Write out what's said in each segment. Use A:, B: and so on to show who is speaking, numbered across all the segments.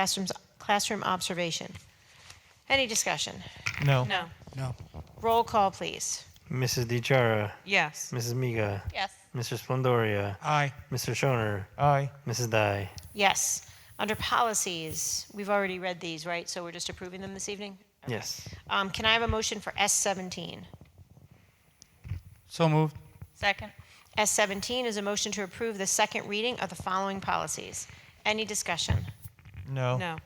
A: classrooms, classroom observation. Any discussion?
B: No.
C: No.
D: No.
A: Roll call, please.
E: Mrs. DiChara,
C: Yes.
E: Mrs. Miga,
A: Yes.
E: Mr. Splendoria,
D: Aye.
E: Mr. Schoner,
B: Aye.
E: Mrs. Dye.
A: Yes. Under policies, we've already read these, right? So we're just approving them this evening?
E: Yes.
A: Um, can I have a motion for S seventeen?
D: So moved.
C: Second.
A: S seventeen is a motion to approve the second reading of the following policies. Any discussion?
B: No.
C: No.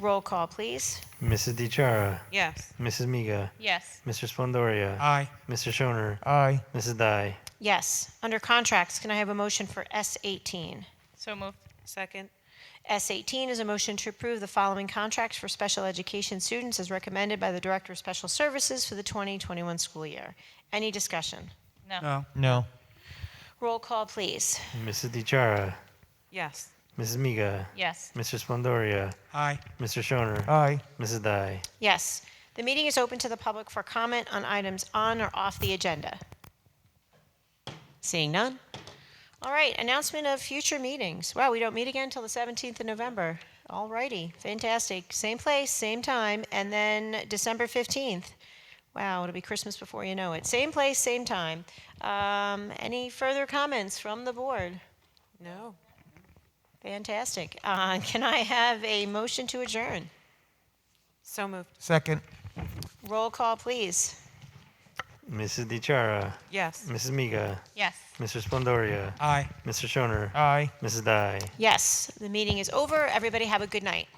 A: Roll call, please.
E: Mrs. DiChara,
C: Yes.
E: Mrs. Miga,
C: Yes.
E: Mr. Splendoria,
D: Aye.
E: Mr. Schoner,
B: Aye.
E: Mrs. Dye.
A: Yes. Under contracts, can I have a motion for S eighteen?
C: So moved. Second.
A: S eighteen is a motion to approve the following contracts for special education students as recommended by the Director of Special Services for the 2021 school year. Any discussion?
D: No.
B: No.
A: Roll call, please.
E: Mrs. DiChara,
C: Yes.
E: Mrs. Miga,
C: Yes.
E: Mr. Splendoria,
D: Aye.
E: Mr. Schoner,
B: Aye.
E: Mrs. Dye.
A: Yes. The meeting is open to the public for comment on items on or off the agenda. Seeing none? All right, announcement of future meetings. Wow, we don't meet again until the 17th of November. All righty, fantastic. Same place, same time, and then December 15th. Wow, it'll be Christmas before you know it. Same place, same time. Um, Any further comments from the board?
C: No.
A: Fantastic. Uh, Can I have a motion to adjourn?
C: So moved.
B: Second.
A: Roll call, please.
E: Mrs. DiChara,
C: Yes.
E: Mrs. Miga,
C: Yes.
E: Mr. Splendoria,
D: Aye.
E: Mr. Schoner,
B: Aye.
E: Mrs. Dye.
A: Yes, the meeting is over. Everybody have a good night.